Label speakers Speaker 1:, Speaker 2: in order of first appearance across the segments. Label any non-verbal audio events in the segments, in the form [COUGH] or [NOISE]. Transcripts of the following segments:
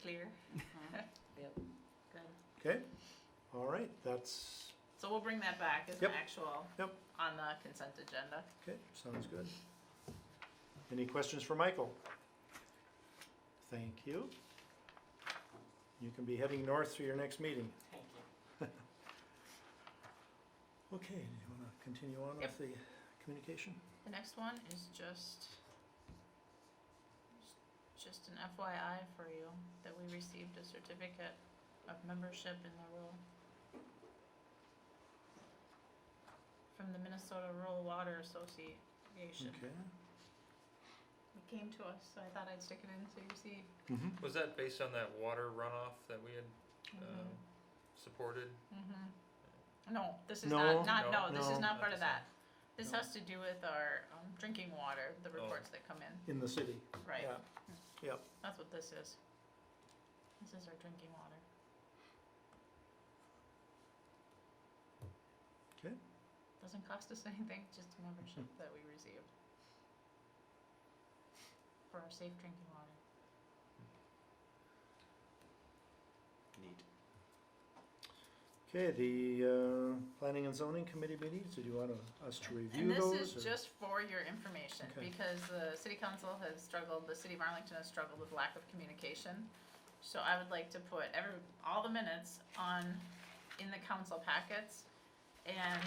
Speaker 1: clear.
Speaker 2: Mm-hmm.
Speaker 1: [LAUGHS]
Speaker 3: Yep.
Speaker 1: Good.
Speaker 4: Okay, all right, that's,
Speaker 1: So we'll bring that back as an
Speaker 4: Yep.
Speaker 1: actual
Speaker 4: Yep.
Speaker 1: on the consent agenda.
Speaker 4: okay, sounds good. Any questions for Michael? Thank you. You can be heading north for your next meeting.
Speaker 3: Thank you.
Speaker 4: [LAUGHS] Okay, do you wanna continue on
Speaker 1: Yep.
Speaker 4: with the communication?
Speaker 1: The next one is just just an FYI for you that we received a certificate of membership in the rural from the Minnesota Rural Water Association.
Speaker 4: Okay.
Speaker 1: It came to us, so I thought I'd stick it in so you see.
Speaker 4: Mhm.
Speaker 2: Was that based on that water runoff that we had um, supported?
Speaker 1: Mm-hmm. No, this is
Speaker 4: No,
Speaker 1: not, not,
Speaker 2: No,
Speaker 1: no, this is not
Speaker 4: no.
Speaker 1: part of that.
Speaker 2: Not
Speaker 1: This
Speaker 4: No.
Speaker 1: has to do with our um, drinking water, the
Speaker 2: Oh.
Speaker 1: reports that come in,
Speaker 4: In the city,
Speaker 1: right?
Speaker 4: yeah,
Speaker 1: That's what this is. This is our drinking water.
Speaker 4: Okay. Hmm.
Speaker 1: Doesn't cost us [LAUGHS] anything, just a membership that we received. For our safe drinking water.
Speaker 5: Neat.
Speaker 4: okay, the, uh, planning and zoning committee meetings, did you want us to review
Speaker 1: And
Speaker 4: those?
Speaker 1: this is
Speaker 4: or-
Speaker 1: just for your information,
Speaker 4: Okay.
Speaker 1: because the city council has struggled, the city of Arlington has struggled with lack of communication. So I would like to put every, all the minutes on, in the council packets. And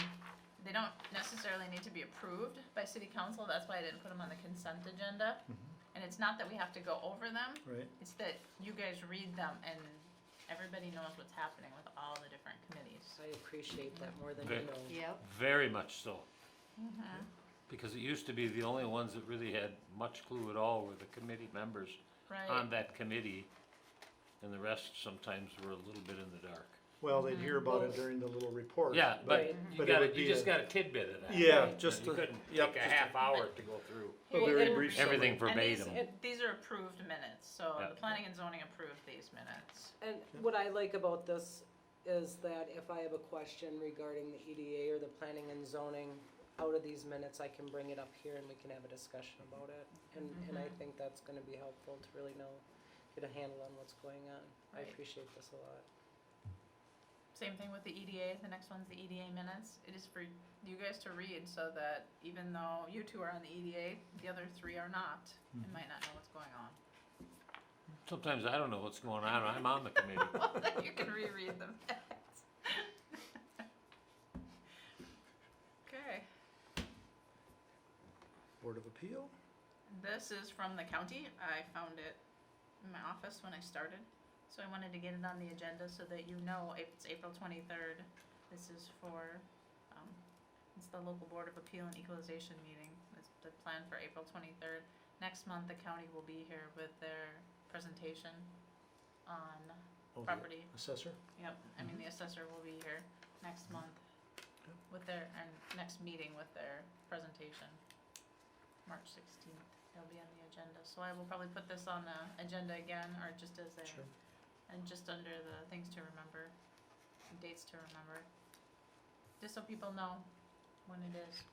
Speaker 1: they don't necessarily need to be approved by city council, that's why I didn't put them on the consent agenda.
Speaker 4: Mhm.
Speaker 1: And it's not that we have to go over them,
Speaker 4: Right,
Speaker 1: it's that you guys read them and everybody knows what's happening with all the different committees.
Speaker 3: I appreciate that more than
Speaker 6: Ve-
Speaker 3: you know.
Speaker 7: Yep,
Speaker 6: Very much so,
Speaker 1: Mhm.
Speaker 6: because it used to be the only ones that really had much clue at all were the committee members
Speaker 1: Right,
Speaker 6: on that committee. And the rest sometimes were a little bit in the dark.
Speaker 4: well, they'd hear about it
Speaker 1: Mm-hmm.
Speaker 3: Well-
Speaker 4: during the little report.
Speaker 6: Yeah, but
Speaker 3: Right.
Speaker 6: you
Speaker 4: But it
Speaker 6: got,
Speaker 4: would
Speaker 6: you
Speaker 4: be
Speaker 6: just
Speaker 4: a-
Speaker 6: got a tidbit of that.
Speaker 4: Yeah,
Speaker 3: Right.
Speaker 4: just
Speaker 6: You
Speaker 4: a,
Speaker 6: couldn't
Speaker 4: yep,
Speaker 6: take a
Speaker 4: just a-
Speaker 6: half hour to go through
Speaker 4: a
Speaker 3: Well,
Speaker 4: very
Speaker 3: and-
Speaker 4: brief summary.
Speaker 6: everything
Speaker 1: and these,
Speaker 6: verbatim.
Speaker 3: It-
Speaker 1: these are approved minutes, so
Speaker 6: Yeah.
Speaker 1: the planning and zoning approved these minutes.
Speaker 3: And what I like about this is that if I have a question regarding the EDA or the planning and zoning, out of these minutes, I can bring it up here and we can have a discussion about it. And, and I think that's gonna be helpful to really know, get a handle on what's going on. I
Speaker 1: Right.
Speaker 3: appreciate this a lot.
Speaker 1: Same thing with the EDA, the next one's the EDA minutes. It is for you guys to read so that even though you two are on the EDA, the other three are not, and might not know what's going on. [LAUGHS]
Speaker 6: Sometimes I don't know what's going on, I'm on the committee.
Speaker 1: Well, then you can reread them. [LAUGHS] Okay,
Speaker 4: Board of Appeal?
Speaker 1: this is from the county. I found it in my office when I started. So I wanted to get it on the agenda so that you know if it's April twenty-third. This is for, um, it's the local board of appeal and equalization meeting. It's the plan for April twenty-third. Next month, the county will be here with their presentation on
Speaker 4: Oh, the
Speaker 1: property
Speaker 4: Assessor?
Speaker 1: Yep, I mean, the assessor will be here next month
Speaker 4: Mm-hmm. Yep.
Speaker 1: with their, and next meeting with their presentation, March sixteenth, it'll be on the agenda, so I will probably put this on the agenda again, or just as a,
Speaker 4: Sure.
Speaker 1: and just under the things to remember, and dates to remember, just so people know when it is.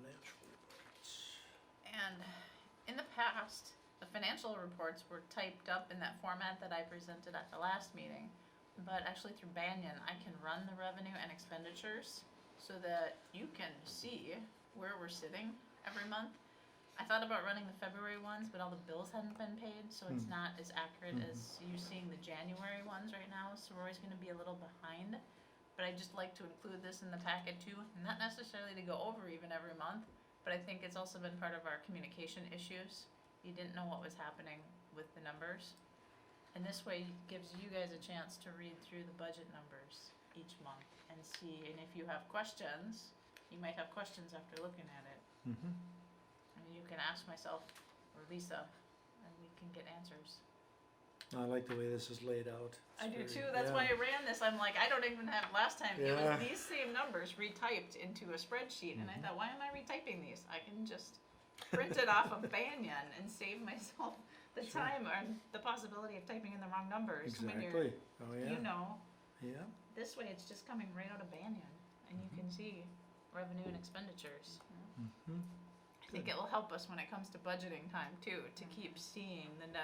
Speaker 4: Financial reports.
Speaker 1: And in the past, the financial reports were typed up in that format that I presented at the last meeting. But actually through Banyan, I can run the revenue and expenditures so that you can see where we're sitting every month. I thought about running the February ones, but all the bills hadn't been paid, so it's
Speaker 4: Hmm.
Speaker 1: not as accurate
Speaker 4: Mhm.
Speaker 1: as you seeing the January ones right now, so we're always gonna be a little behind. But I just like to include this in the packet too, not necessarily to go over even every month, but I think it's also been part of our communication issues. You didn't know what was happening with the numbers. And this way gives you guys a chance to read through the budget numbers each month and see, and if you have questions, you might have questions after looking at it.
Speaker 4: Mm-hmm.
Speaker 1: And you can ask myself or Lisa, and we can get answers.
Speaker 4: I like the way this is laid out.
Speaker 1: I
Speaker 4: It's
Speaker 1: do
Speaker 4: very-
Speaker 1: too, that's
Speaker 4: yeah.
Speaker 1: why I ran this, I'm like, I don't even have, last time, it
Speaker 4: Yeah. Mm-hmm.
Speaker 1: was these same numbers retyped into a spreadsheet, and I thought, why am I retyping these? I can just print it
Speaker 4: [LAUGHS]
Speaker 1: off of Banyan and save myself the
Speaker 4: Sure.
Speaker 1: time or the possibility of typing in the wrong numbers when you're,
Speaker 4: Exactly, oh
Speaker 1: you
Speaker 4: yeah,
Speaker 1: know,
Speaker 4: yeah,
Speaker 1: this way it's just coming right out of Banyan, and you can see revenue and expenditures.
Speaker 4: mm-hmm.
Speaker 1: I think it will help us when it comes to budgeting time too, to keep seeing the net